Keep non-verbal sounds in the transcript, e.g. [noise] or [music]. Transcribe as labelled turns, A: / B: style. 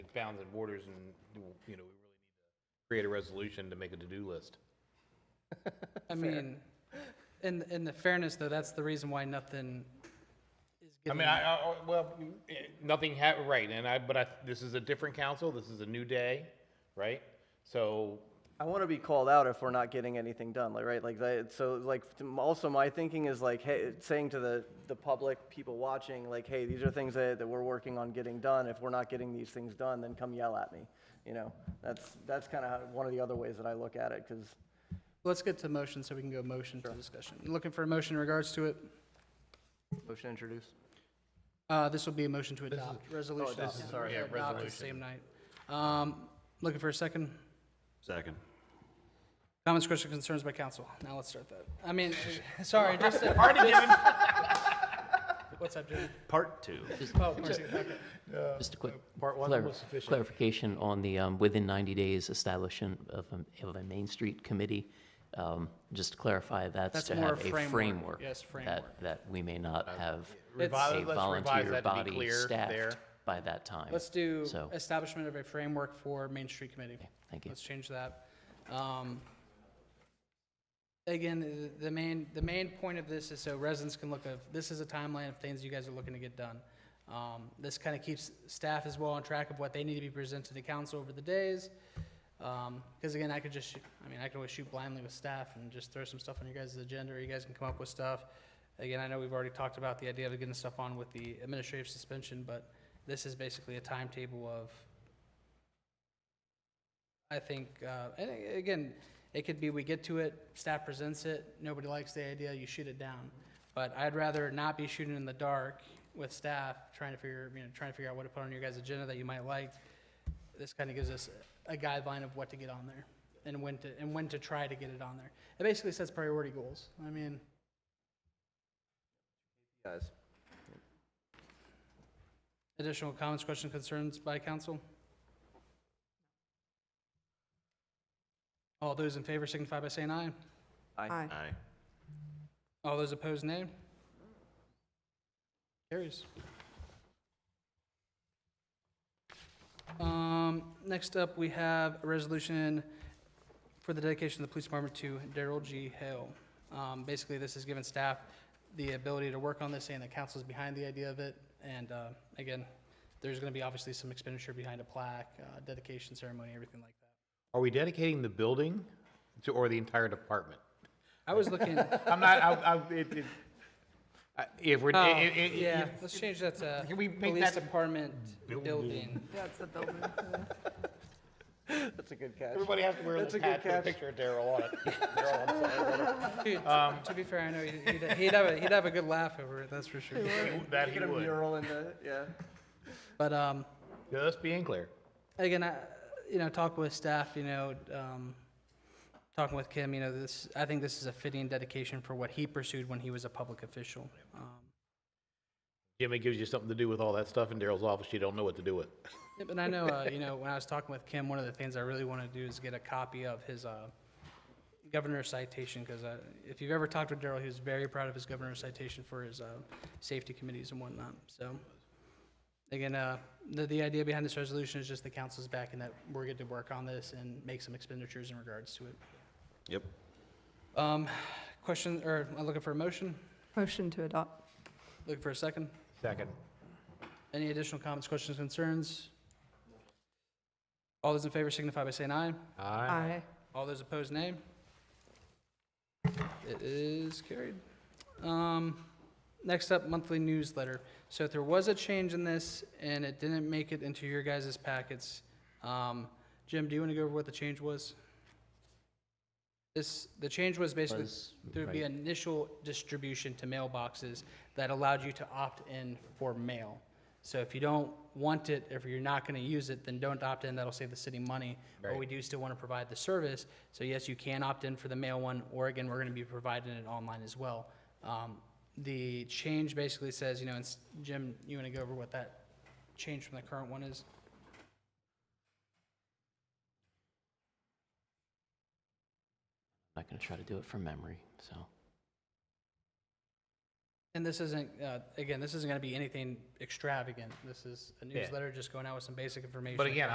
A: bounds and borders and, you know, we really need to create a resolution to make a to-do list.
B: I mean, in, in the fairness, though, that's the reason why nothing is
A: I
B: getting.
A: mean, I, I, I- well, eh, nothing ha, right, and I, but I, this is a different council, this is a new day, right? So,
C: I want to be called out if we're not getting anything done, like, right? Like, that, so, like, m- also my thinking is like, hey, saying to the, the public, people watching, like, hey, these are things that, that we're working on getting done. If we're not getting these things done, then come yell at me, you know? That's, that's kind of one of the other ways that I look at it, because
B: Let's get to motion so we can go motion to discussion. Looking for a motion in regards to it.
C: motion introduced.
B: Uh, this will be a motion to adopt resolution.
C: adopt,
B: Yeah,
C: sorry.
B: we're gonna adopt it Same night. Um, looking for a second?
D: Second.
B: Comments, questions, concerns by council. Now let's start that. I [laughs] mean, uh, sorry, just. to- What's up, Jimmy?
D: Part two.
B: Oh, mercy, okay.
E: Just a quick
A: part one
E: clar-
A: was sufficient.
E: clarification on the, um, within 90 days establishment of a, of a Main Street committee. Um, Just to clarify, that's
B: That's
E: to
B: more
E: have
B: a
E: a
B: framework.
E: framework.
B: Yes, framework.
E: That, that we may not have
B: It's-
E: a
A: Revise- Uh, let's revise
E: volunteer
A: that to be
E: body
A: clear there.
E: staffed by that time.
B: Let's do
E: So-
B: establishment of a framework for Main Street Committee.
E: thank you.
B: Let's change that. Um, Again, the- the main, the main point of this is so residents can look of, this is a timeline of things you guys are looking to get done. Um, This kind of keeps staff as well on track of what they need to be presented to council over the days. Because again, I could just, shoot- I mean, I could always shoot blindly with staff and just throw some stuff on your guys' agenda, or you guys can come up with stuff. Again, I know we've already talked about the idea of getting stuff on with the administrative suspension, but this is basically a timetable of, I think, uh, and a- again, it could be we get to it, staff presents it, nobody likes the idea, you shoot it down. But I'd rather not be shooting in the dark with staff, trying to figure, you know, trying to figure out what to put on your guys' agenda that you might like. This kind of gives us a guideline of what to get on there and when to, and when to try to get it on there. It basically sets priority goals. I mean,
C: Guys.
B: additional comments, questions, concerns by council? All those in favor signify by saying aye.
C: Aye.
D: Aye.
B: All those opposed, nay. Carries. Um, next up, we have a resolution for the dedication of the police department to Daryl G. Hale. Um, basically, this has given staff the ability to work on this, saying the council is behind the idea of it. And, uh, again, there's gonna be obviously some expenditure behind a plaque, uh, dedication ceremony, everything like that.
A: Are we dedicating the building to, or the entire department?
B: I was
A: [laughs]
B: looking,
A: I'm not, I, I, it, it, I- if we're,
B: oh,
A: i- i- i-
B: yeah,
A: if-
B: let's change that to
A: Can we make
B: police
A: that
B: department building.
F: That's the building.
C: That's a good catch.
A: everybody has to wear a
C: That's
A: little
C: a good
A: hat with a
C: catch.
A: picture of Daryl on it. Daryl, I'm sorry.
B: Dude, t- to be fair, I know he'd, he'd, he'd have a, he'd have a good laugh over it, that's for sure.
A: [laughs] That he
C: Get a
A: would.
C: mural in the, yeah.
B: But um,
A: Just being clear.
B: again, I, you know, talk with staff, you know, um, talking with Kim, you know, this, I think this is a fitting dedication for what he pursued when he was a public official. Um,
A: Jimmy gives you something to do with all that stuff in Daryl's office you don't know what to do with.
B: yeah, but I know, uh, you know, when I was talking with Kim, one of the things I really want to do is get a copy of his uh, governor's citation because uh, if you've ever talked with Daryl, he was very proud of his governor's citation for his uh, safety committees and whatnot. So, again, uh, the, the idea behind this resolution is just the council's back and that we're good to work on this and make some expenditures in regards to it.
D: Yep.
B: Um, question, or I'm looking for a motion?
F: Motion to adopt.
B: Looking for a second?
A: Second.
B: Any additional comments, questions, concerns? All those in favor signify by saying aye.
A: Aye.
B: All those opposed, nay. It is carried. Um, Next up, monthly newsletter. So if there was a change in this and it didn't make it into your guys' packets, um, Jim, do you want to go over what the change was? This, the change was basically,
E: Was-
B: there would be initial distribution to mailboxes that allowed you to opt in for mail. So if you don't want it, if you're not going to use it, then don't opt in, that'll save the city money. But we do still want to provide the service, so yes, you can opt in for the mail one, or again, we're going to be providing it online as well. Um, The change basically says, you know, it's, Jim, you want to go over what that change from the current one is?
E: I'm not going to try to do it from memory, so.
B: And this isn't, uh, again, this isn't going to be anything extravagant. This is a newsletter just going out with some basic information.
A: But again,